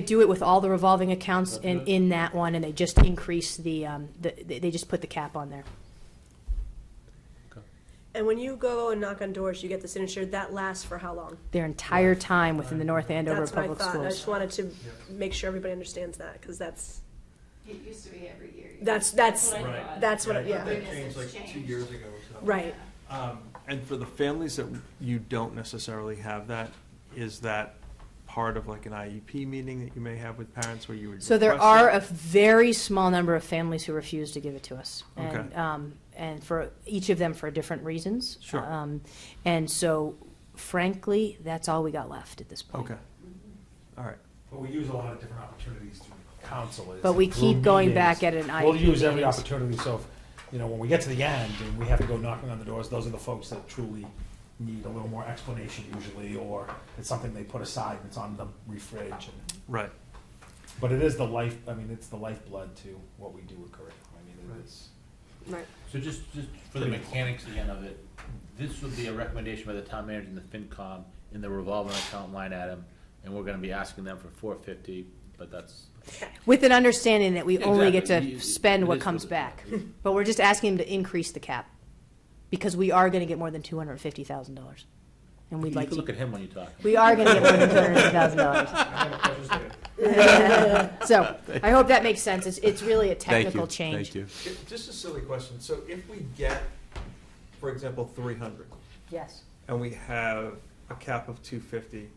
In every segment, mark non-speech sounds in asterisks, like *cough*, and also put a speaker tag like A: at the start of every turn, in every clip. A: do it with all the revolving accounts in,
B: Mhm.
A: in that one, and they just increase the, um, the, they they just put the cap on there.
C: And when you go and knock on doors, you get the signature. That lasts for how long?
A: Their entire time within the North Andover
C: that's what I
A: Public
C: thought. and I just
A: Schools.
C: wanted to make sure everybody understands that because that's
D: It used to be every year.
C: That's- that's-
D: what I
B: Right.
D: thought.
C: that's what.
B: I
C: I-
B: think
C: yeah.
B: That changed like two years ago or something.
C: Right.
B: Um, And for the families that you don't necessarily have that, is that part of like an IEP meeting that you may have with parents where you would?
A: So there
B: request
A: are
B: it?
A: a very small number of families who refuse to give it to us. And,
B: Okay.
A: um, and for, each of them for different reasons.
B: Sure.
A: Um, And so frankly, that's all we got left at this point.
B: Okay, all right.
E: But we use a lot of different opportunities through council. is
A: But we
E: through
A: keep going back at it
E: meetings.
A: in
E: We'll
A: IEP
E: use every
A: meetings.
E: opportunity, so, if, you know, when we get to the end and we have to go knocking on the doors, those are the folks that truly need a little more explanation usually, or it's something they put aside and it's on the refridge. and-
B: Right,
E: But it is the life, I mean, it's the lifeblood to what we do with curriculum. I mean,
B: Right.
E: it is.
C: Right.
F: So just, just for the mechanics again of it, this would be a recommendation by the town manager and the FinCom in the revolving account line item, and we're gonna be asking them for four fifty, but that's.
A: With an understanding that we only get
F: Exactly.
A: to
F: You-
A: spend
F: it
A: what
F: is
A: comes
F: what it-
A: back. *laughs* But we're just asking them to increase the cap, because we are gonna get more than two hundred and fifty thousand dollars. And
F: You
A: we'd like
F: can
A: to
F: look at him when you talk.
A: We are going to
F: *laughs*
A: get more than two hundred fifty thousand
E: *laughs*
A: dollars. *laughs*
F: *laughs*
A: So I hope that makes sense. It's, it's really a technical change.
F: Ah. you.
B: just a silly question, so if we get, for example, three hundred,
A: Yes.
B: and we have a cap of two fifty,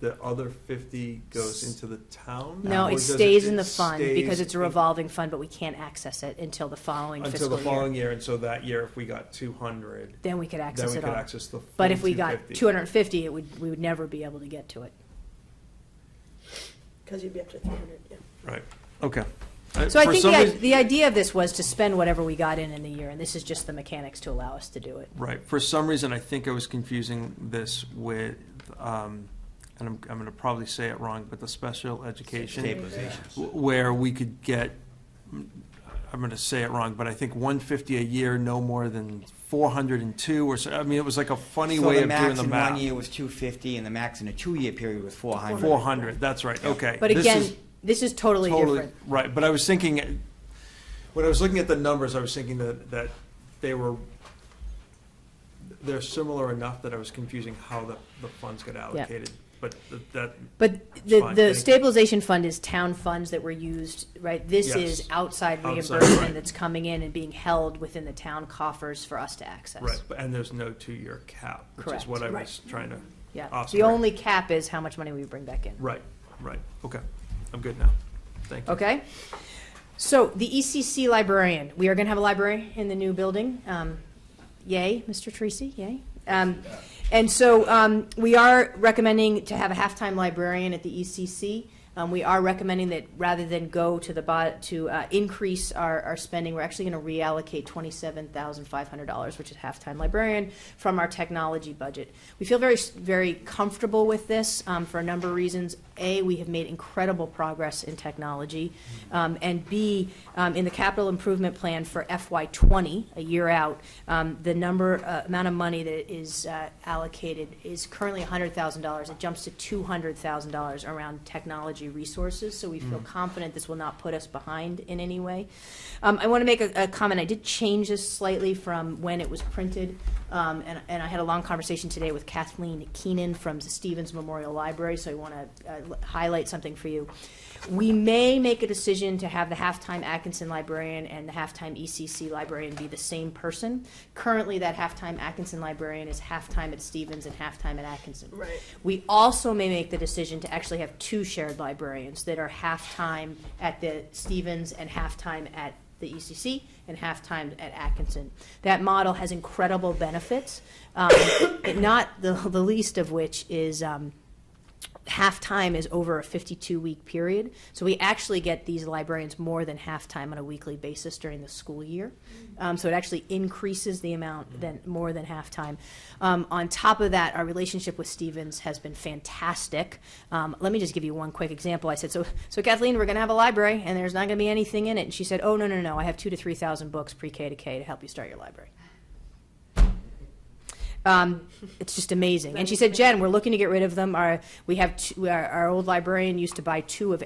B: the other fifty goes into the town?
A: No,
B: Or
A: it
B: does
A: stays in
B: it
A: the fund
B: stays
A: because it's a
B: in-
A: revolving fund, but we can't access it until the following
B: Until the
A: fiscal
B: following
A: year.
B: year, and so that year, if we got two hundred,
A: Then we could
B: then
A: access
B: we
A: it
B: could
A: all.
B: access the.
A: But if we
B: full
A: got
B: 250.
A: two hundred and fifty, it would, we would never be able to get to it.
C: Because you'd be up to 300. Yeah.
B: Right, okay. Uh,
A: So I
B: for
A: think
B: some
A: the, i-
B: reas-
A: the idea of this was to spend whatever we got in in the year, and this is just the mechanics to allow us to do it.
B: Right, for some reason, I think I was confusing this with, um, and I'm, I'm gonna probably say it wrong, but the special education, w- where we could get, mm, I'm gonna say it wrong, but I think one fifty a year, no more than four hundred and two, or so, I mean, it was like a funny
G: So
B: way of doing
G: max
B: the
G: in One year
B: math.
G: was two fifty, and the max in a two-year period was four hundred.
B: Four hundred, that's right, okay.
A: But
B: This
A: again,
B: is-
A: this is totally different.
B: Right, but I was thinking, when I was looking at the numbers, I was thinking that, that they were, they're similar enough that I was confusing how the, the funds got allocated. But th- that,
A: But
B: It's
A: the,
B: fine,
A: the
B: thank you.
A: stabilization fund is town funds that were used, right? This is
B: Yes.
A: outside
B: Outside, right.
A: reimbursement that's coming in and being held within the town coffers for us to access.
B: right, but- and there's no two-year cap, which is
A: Correct.
B: what I
C: Right.
B: was trying to,
A: Yeah,
B: Awesome.
A: the only cap is how much money we bring back in.
B: right, right, okay, I'm good now, thank you.
A: Okay? So the ECC librarian, we are going to have a library in the new building. Um, Yay, Mr. Tracy, yay. Um, And so um, we are recommending to have a halftime librarian at the ECC. Um, We are recommending that rather than go to the, bo- to uh, increase our, our spending, we're actually going to reallocate $27,500, which is halftime librarian, from our technology budget. We feel very, s- very comfortable with this um, for a number of reasons. A, we have made incredible progress in technology. Um, And B, um, in the capital improvement plan for FY '20, a year out, um, the number, uh, amount of money that is uh, allocated is currently $100,000. It jumps to $200,000 around technology resources, so we feel confident this will not put us behind in any way. Um, I want to make a a comment, I did change this slightly from when it was printed, um, and and I had a long conversation today with Kathleen Keenan from Stevens Memorial Library, so I want to highlight something for you. We may make a decision to have the halftime Atkinson librarian and the halftime ECC librarian be the same person. Currently, that halftime Atkinson librarian is halftime at Stevens and halftime at Atkinson.
C: Right.
A: We also may make the decision to actually have two shared librarians that are half-time at the Stevens and half-time at the ECC and half-time at Atkinson. That model has incredible benefits, um, *coughs* not the, the least of which is, um, half-time is over a 52-week period. So we actually get these librarians more than half-time on a weekly basis during the school year. Um, so it actually increases the amount than, more than half-time. Um, on top of that, our relationship with Stevens has been fantastic. Um, let me just give you one quick example. I said, so, so Kathleen, we're going to have a library and there's not going to be anything in it. And she said, oh, no, no, no, I have two to 3,000 books pre-K to K to help you start your library. Um, it's just amazing. And she said, Jen, we're looking to get rid of them. Our, we have, two, our, our old librarian used to buy two of